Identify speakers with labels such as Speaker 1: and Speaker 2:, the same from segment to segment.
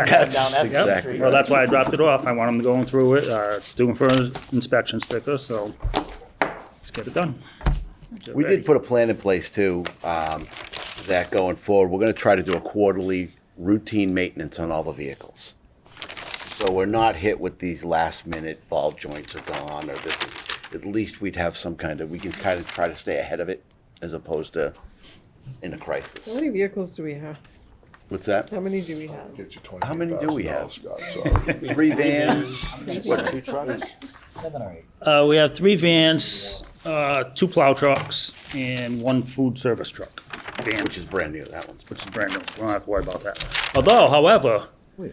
Speaker 1: turn them down Essex
Speaker 2: exactly
Speaker 1: Street.
Speaker 2: right.
Speaker 3: Well, that's why I dropped it off. I want them going through it. Uh, It's doing for an inspection sticker, so let's get it done.
Speaker 2: We did put a plan in place too, um, that going forward, we're gonna try to do a quarterly routine maintenance on all the vehicles. So we're not hit with these last minute ball joints are gone or this, at least we'd have some kind of, we can kind of try to stay ahead of it as opposed to in a
Speaker 4: How
Speaker 2: crisis.
Speaker 4: many vehicles do we have?
Speaker 2: What's that?
Speaker 4: How many do we have?
Speaker 5: Get you twenty.
Speaker 2: How many do we have?
Speaker 5: Scott, sorry.
Speaker 2: Three vans, what, two trucks?
Speaker 1: Seven or eight.
Speaker 3: Uh, we have three vans, uh, two plow trucks, and one food service truck. Van,
Speaker 2: Which is brand new, that one's.
Speaker 3: which is brand new. We don't have to worry about that. Although, however,
Speaker 2: Oh,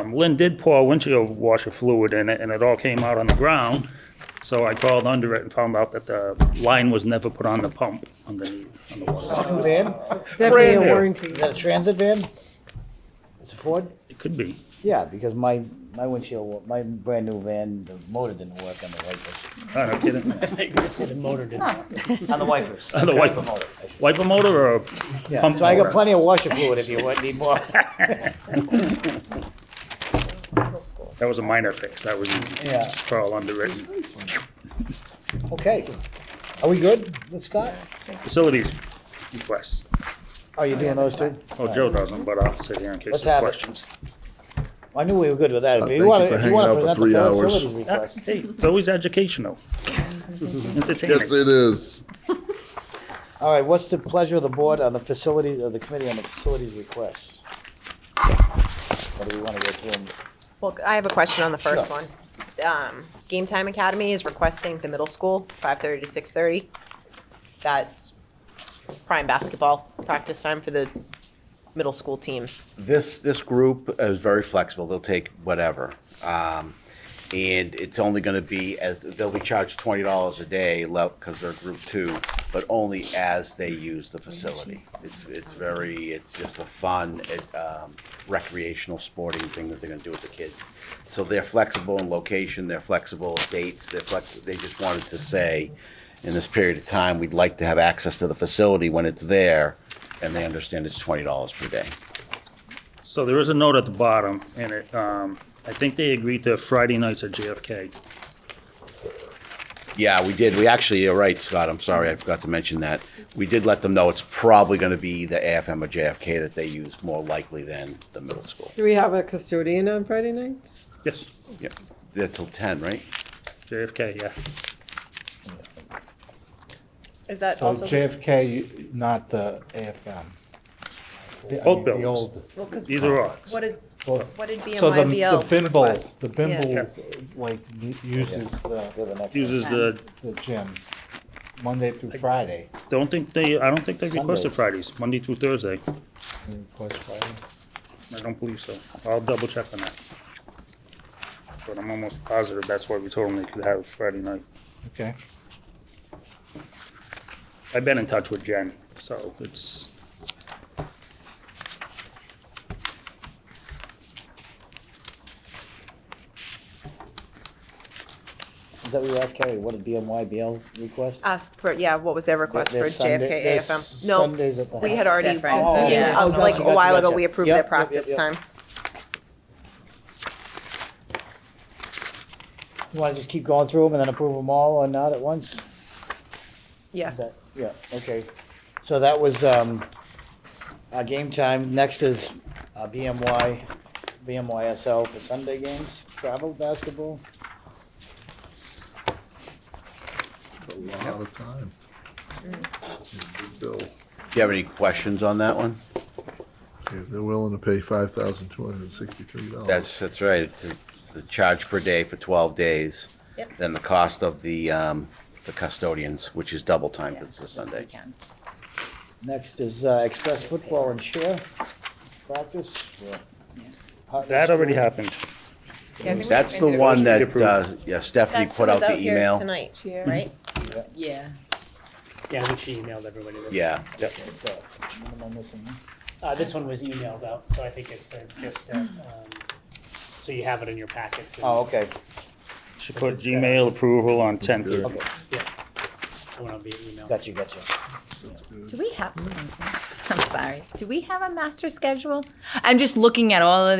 Speaker 3: um, Lynn did pour windshield washer fluid in it, and it all came out on the ground. So I called under it and found out that the line was never put on the pump underneath, on the water.
Speaker 1: Van?
Speaker 4: Definitely a
Speaker 2: new.
Speaker 4: warranty.
Speaker 1: Is that a transit van? It's a Ford?
Speaker 3: It could be.
Speaker 1: Yeah, because my, my windshield, my brand new van, the motor didn't work on the wipers.
Speaker 3: I don't get it.
Speaker 1: On the wipers.
Speaker 3: On the wiper.
Speaker 1: motor, I should-
Speaker 3: Wiper motor or
Speaker 1: Yeah,
Speaker 3: pump
Speaker 1: so I got
Speaker 3: motor?
Speaker 1: plenty of washer fluid if you want, need more.
Speaker 3: That was a minor fix. That was easy.
Speaker 1: Yeah.
Speaker 3: Just crawl under it. and-
Speaker 1: Okay. Are we good with Scott?
Speaker 3: Facilities requests.
Speaker 1: Are you doing those two?
Speaker 3: Oh, Joe doesn't, but I'll sit here in case
Speaker 1: Let's
Speaker 3: there's
Speaker 1: have it.
Speaker 3: questions.
Speaker 1: I knew we were good with that. If
Speaker 5: Uh, thank
Speaker 1: you
Speaker 5: you
Speaker 1: want
Speaker 5: for
Speaker 1: to, if you
Speaker 5: hanging
Speaker 1: want to
Speaker 5: out for
Speaker 1: present the
Speaker 5: three hours.
Speaker 1: facilities
Speaker 3: Uh,
Speaker 1: request.
Speaker 3: Hey, it's always educational.
Speaker 5: Yes,
Speaker 3: Entertaining.
Speaker 5: it is.
Speaker 1: All right, what's the pleasure of the board on the facility, of the committee on the facilities requests? What do we want to go through? them?
Speaker 6: Well, I have a question on the first
Speaker 1: Sure.
Speaker 6: one. Um, Game Time Academy is requesting the middle school, five thirty to six thirty. That's prime basketball practice time for the middle school teams.
Speaker 2: this this group is very flexible. They'll take whatever, um, and it's only going to be as they'll be charged twenty dollars a day because they're group two, but only as they use the facility. It's it's very it's just a fun it, um, recreational sporting thing that they're going to do with the kids. So they're flexible in location. They're flexible in dates. They're flex. They just wanted to say. In this period of time, we'd like to have access to the facility when it's there, and they understand it's twenty dollars per day.
Speaker 3: So there is a note at the bottom, and it, um, I think they agreed to Friday nights at JFK.
Speaker 2: Yeah, we did. We actually, you're right, Scott. I'm sorry, I forgot to mention that. We did let them know it's probably going to be the AFM or JFK that they use more likely than the middle school.
Speaker 4: Do we have a custodian on Friday nights?
Speaker 3: Yes,
Speaker 2: Yeah, They're till 10, right?
Speaker 3: JFK, yeah.
Speaker 6: Is that
Speaker 7: So
Speaker 6: also?
Speaker 7: JFK, not the AFM. The- I
Speaker 3: Both
Speaker 7: mean, the
Speaker 3: buildings.
Speaker 7: old-
Speaker 3: Either or.
Speaker 6: What is,
Speaker 7: both.
Speaker 6: what did
Speaker 7: So the, the
Speaker 6: BMYBL
Speaker 7: Bimble,
Speaker 6: request?
Speaker 7: the
Speaker 6: Yeah.
Speaker 7: Bimble, like, u- uses
Speaker 1: Go
Speaker 7: the,
Speaker 1: to the next one.
Speaker 3: Uses the,
Speaker 7: the gym, Monday through Friday.
Speaker 3: don't think they, I don't think they requested
Speaker 1: Sunday.
Speaker 3: Fridays, Monday through Thursday.
Speaker 7: Request Friday.
Speaker 3: I don't believe so. I'll double check on that. But I'm almost positive that's why we told them they could have Friday night.
Speaker 7: Okay,
Speaker 3: I've been in touch with Jen, so it's,
Speaker 1: Is that what you asked, Carrie? What a BMYBL request?
Speaker 6: Ask for, yeah, what was their request for
Speaker 1: Their Sunday-
Speaker 6: JFK
Speaker 1: their
Speaker 6: AFM? No,
Speaker 1: Sundays at the
Speaker 6: we
Speaker 1: house.
Speaker 6: had already,
Speaker 8: different. Oh,
Speaker 6: yeah,
Speaker 1: yeah.
Speaker 6: like a
Speaker 1: Gotcha,
Speaker 6: while ago,
Speaker 1: gotcha.
Speaker 6: we approved their
Speaker 1: Yep, yep, yep,
Speaker 6: practice
Speaker 1: yep.
Speaker 6: times.
Speaker 1: You want to just keep going through them and then approve them all or not at once?
Speaker 6: Yeah.
Speaker 1: Is that- Yeah, okay. So that was, um, uh, game time. Next is, uh, BMY, BMYSL for Sunday games, travel basketball.
Speaker 5: A lot of time. Big bill.
Speaker 2: Do you have any questions on that one?
Speaker 5: If they're willing to pay five thousand two hundred and sixty-three dollars.
Speaker 2: That's, that's right. It's a- the charge per day for 12 days.
Speaker 8: Yep.
Speaker 2: Then the cost of the, um, the custodians, which is double time, 'cause it's a Sunday.
Speaker 8: Weekend.
Speaker 1: Next is, uh, express football and cheer practice. for Putnam
Speaker 3: that already
Speaker 1: School.
Speaker 3: happened.
Speaker 2: That's the one that,
Speaker 3: approved.
Speaker 2: uh, yeah, Stephanie
Speaker 6: That's
Speaker 2: put
Speaker 6: who
Speaker 2: out
Speaker 6: was
Speaker 2: the
Speaker 6: here
Speaker 2: email.
Speaker 6: Tonight,
Speaker 8: Right?
Speaker 7: Yeah.
Speaker 9: Yeah, I think she emailed everybody this.
Speaker 2: Yeah, yep.
Speaker 1: So, what am I missing?
Speaker 9: Uh, this one was emailed out, so I think it's uh, just, uh, um,
Speaker 8: Hmm.
Speaker 9: so you have it in your packets. and-
Speaker 1: Oh, okay.
Speaker 3: She put Gmail approval on 10th.
Speaker 1: Okay,
Speaker 9: Yeah. It went out via email.
Speaker 1: got you, got you.
Speaker 8: Do we have, I'm sorry, do we have a master schedule? I'm just looking at all of